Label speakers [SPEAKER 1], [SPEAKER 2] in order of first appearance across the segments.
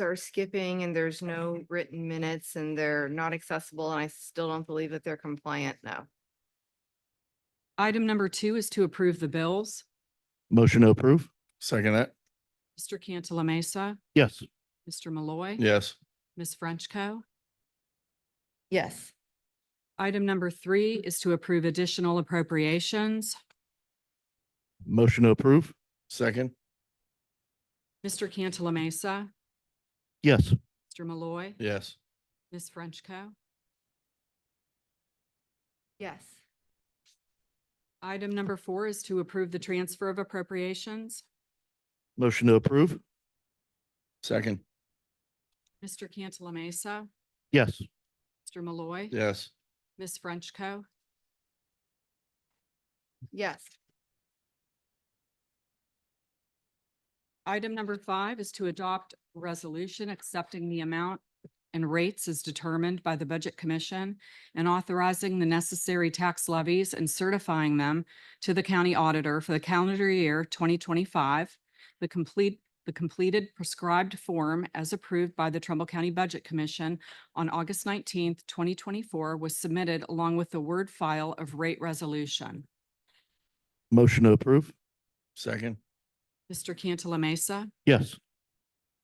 [SPEAKER 1] are skipping and there's no written minutes and they're not accessible and I still don't believe that they're compliant now.
[SPEAKER 2] Item number two is to approve the bills.
[SPEAKER 3] Motion to approve?
[SPEAKER 4] Second that.
[SPEAKER 2] Mr. Cantala Mesa,
[SPEAKER 3] Yes.
[SPEAKER 2] Mr. Malloy.
[SPEAKER 4] Yes.
[SPEAKER 2] Ms. Frenchco.
[SPEAKER 1] Yes.
[SPEAKER 2] Item number three is to approve additional appropriations.
[SPEAKER 3] Motion to approve?
[SPEAKER 4] Second.
[SPEAKER 2] Mr. Cantala Mesa,
[SPEAKER 3] Yes.
[SPEAKER 2] Mr. Malloy.
[SPEAKER 4] Yes.
[SPEAKER 2] Ms. Frenchco.
[SPEAKER 1] Yes.
[SPEAKER 2] Item number four is to approve the transfer of appropriations.
[SPEAKER 3] Motion to approve?
[SPEAKER 4] Second.
[SPEAKER 2] Mr. Cantala Mesa,
[SPEAKER 3] Yes.
[SPEAKER 2] Mr. Malloy.
[SPEAKER 4] Yes.
[SPEAKER 2] Ms. Frenchco.
[SPEAKER 1] Yes.
[SPEAKER 2] Item number five is to adopt a resolution accepting the amount and rates as determined by the Budget Commission and authorizing the necessary tax levies and certifying them to the county auditor for the calendar year twenty twenty-five. The complete, the completed prescribed form as approved by the Trumbull County Budget Commission on August nineteenth, twenty twenty-four was submitted along with the Word file of rate resolution.
[SPEAKER 3] Motion to approve?
[SPEAKER 4] Second.
[SPEAKER 2] Mr. Cantala Mesa,
[SPEAKER 3] Yes.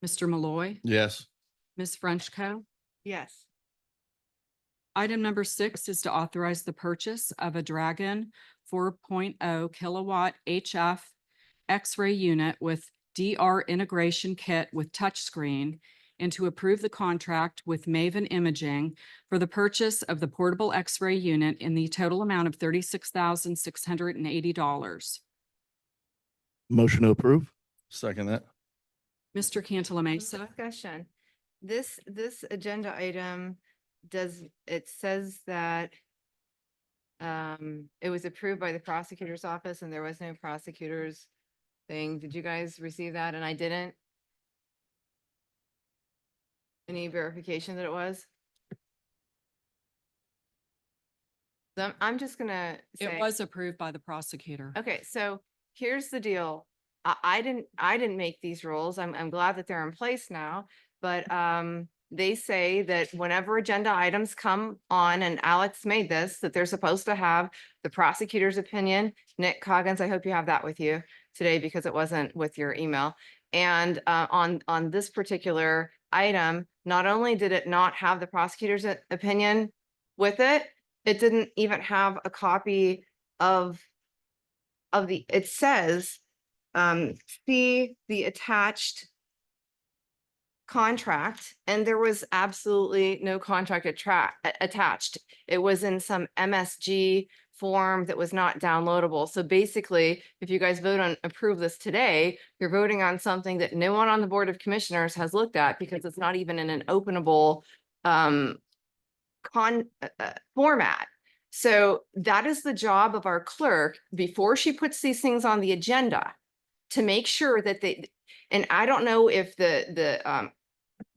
[SPEAKER 2] Mr. Malloy,
[SPEAKER 4] Yes.
[SPEAKER 2] Ms. Frenchco.
[SPEAKER 1] Yes.
[SPEAKER 2] Item number six is to authorize the purchase of a Dragon four oh kilowatt HF X-ray unit with DR integration kit with touchscreen and to approve the contract with Maven Imaging for the purchase of the portable X-ray unit in the total amount of thirty-six thousand six hundred and eighty dollars.
[SPEAKER 3] Motion to approve?
[SPEAKER 4] Second that.
[SPEAKER 2] Mr. Cantala Mesa.
[SPEAKER 1] Mm-hmm, Discussion. This, this agenda item does, it says that um, it was approved by the prosecutor's office and there was no prosecutor's thing. Did you guys receive that? And I didn't? Any verification that it was? So I'm- I'm just gonna say.
[SPEAKER 2] It was approved by the prosecutor.
[SPEAKER 1] Okay, so here's the deal. I, I didn't, I didn't make these rules. I'm, I'm glad that they're in place now. But, um, they say that whenever agenda items come on, and Alex made this, that they're supposed to have the prosecutor's opinion. Nick Coggins, I hope you have that with you today because it wasn't with your email. And, uh, on, on this particular item, not only did it not have the prosecutor's o- opinion with it, it didn't even have a copy of of the, it says, um, see the attached contract, and there was absolutely no contract attra- a- attached. It was in some MSG form that was not downloadable. So basically, if you guys vote on, approve this today, you're voting on something that no one on the Board of Commissioners has looked at because it's not even in an openable, um, con, uh, uh, format. So that is the job of our clerk before she puts these things on the agenda to make sure that they, and I don't know if the, the, um,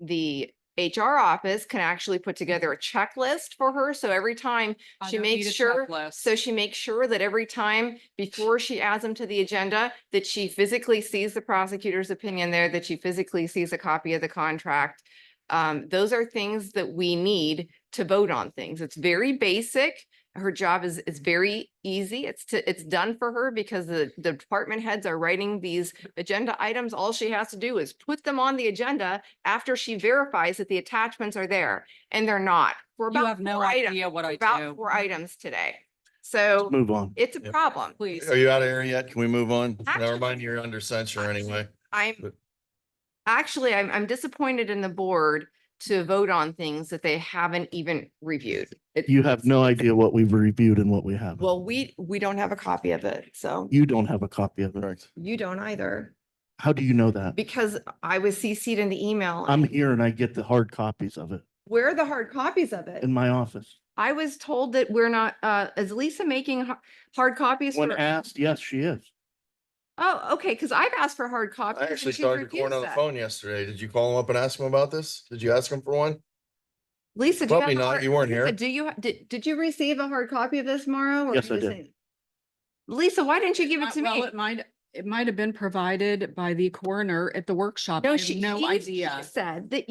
[SPEAKER 1] the HR office can actually put together a checklist for her. So every time
[SPEAKER 2] I
[SPEAKER 1] she
[SPEAKER 2] don't
[SPEAKER 1] makes
[SPEAKER 2] need a
[SPEAKER 1] sure-
[SPEAKER 2] checklist.
[SPEAKER 1] so she makes sure that every time before she adds them to the agenda, that she physically sees the prosecutor's opinion there, that she physically sees a copy of the contract. Um, those are things that we need to vote on things. It's very basic. Her job is, is very easy. It's to, it's done for her because the, the department heads are writing these agenda items. All she has to do is put them on the agenda after she verifies that the attachments are there and they're not. We're
[SPEAKER 2] You
[SPEAKER 1] about
[SPEAKER 2] have no
[SPEAKER 1] four items
[SPEAKER 2] idea what I
[SPEAKER 1] about
[SPEAKER 2] do.
[SPEAKER 1] four items today. So
[SPEAKER 3] Move on.
[SPEAKER 1] it's a
[SPEAKER 4] Yep.
[SPEAKER 1] problem.
[SPEAKER 2] Please.
[SPEAKER 4] Are you out of here yet? Can we move on?
[SPEAKER 1] Actually-
[SPEAKER 4] Never mind, you're under censure anyway.
[SPEAKER 1] I'm,
[SPEAKER 4] But-
[SPEAKER 1] actually, I'm, I'm disappointed in the board to vote on things that they haven't even reviewed. It-
[SPEAKER 3] You have no idea what we've reviewed and what we haven't.
[SPEAKER 1] Well, we, we don't have a copy of it, so
[SPEAKER 3] You don't have a copy of it.
[SPEAKER 4] Correct.
[SPEAKER 1] you don't either,
[SPEAKER 3] How do you know that?
[SPEAKER 1] because I was CC'd in the email.
[SPEAKER 3] I'm here and I get the hard copies of it
[SPEAKER 1] Where are the hard copies of it?
[SPEAKER 3] in my office.
[SPEAKER 1] I was told that we're not, uh, is Lisa making har- hard copies?
[SPEAKER 3] When
[SPEAKER 1] for-
[SPEAKER 3] asked, yes, she is.
[SPEAKER 1] Oh, okay, because I've asked for hard copies.
[SPEAKER 4] I
[SPEAKER 1] and
[SPEAKER 4] actually
[SPEAKER 1] she's
[SPEAKER 4] talked to
[SPEAKER 1] refused
[SPEAKER 4] Corn on the
[SPEAKER 1] it.
[SPEAKER 4] phone yesterday. Did you call him up and ask him about this? Did you ask him for one?
[SPEAKER 1] Lisa, do you have?
[SPEAKER 4] Probably
[SPEAKER 1] the
[SPEAKER 4] not.
[SPEAKER 1] hard-
[SPEAKER 4] You weren't
[SPEAKER 1] Lisa,
[SPEAKER 4] here.
[SPEAKER 1] Do you, ha- did, did you receive a hard copy of this, Mauro? or
[SPEAKER 3] Yes,
[SPEAKER 1] you
[SPEAKER 3] I
[SPEAKER 1] just
[SPEAKER 3] did.
[SPEAKER 1] didn't? Lisa, why didn't you give
[SPEAKER 2] Uh,
[SPEAKER 1] it to
[SPEAKER 2] well,
[SPEAKER 1] me?
[SPEAKER 2] it might- it might have been provided by the coroner at the workshop. I
[SPEAKER 1] No,
[SPEAKER 2] have
[SPEAKER 1] she,
[SPEAKER 2] No
[SPEAKER 1] he- she
[SPEAKER 2] idea.
[SPEAKER 1] said that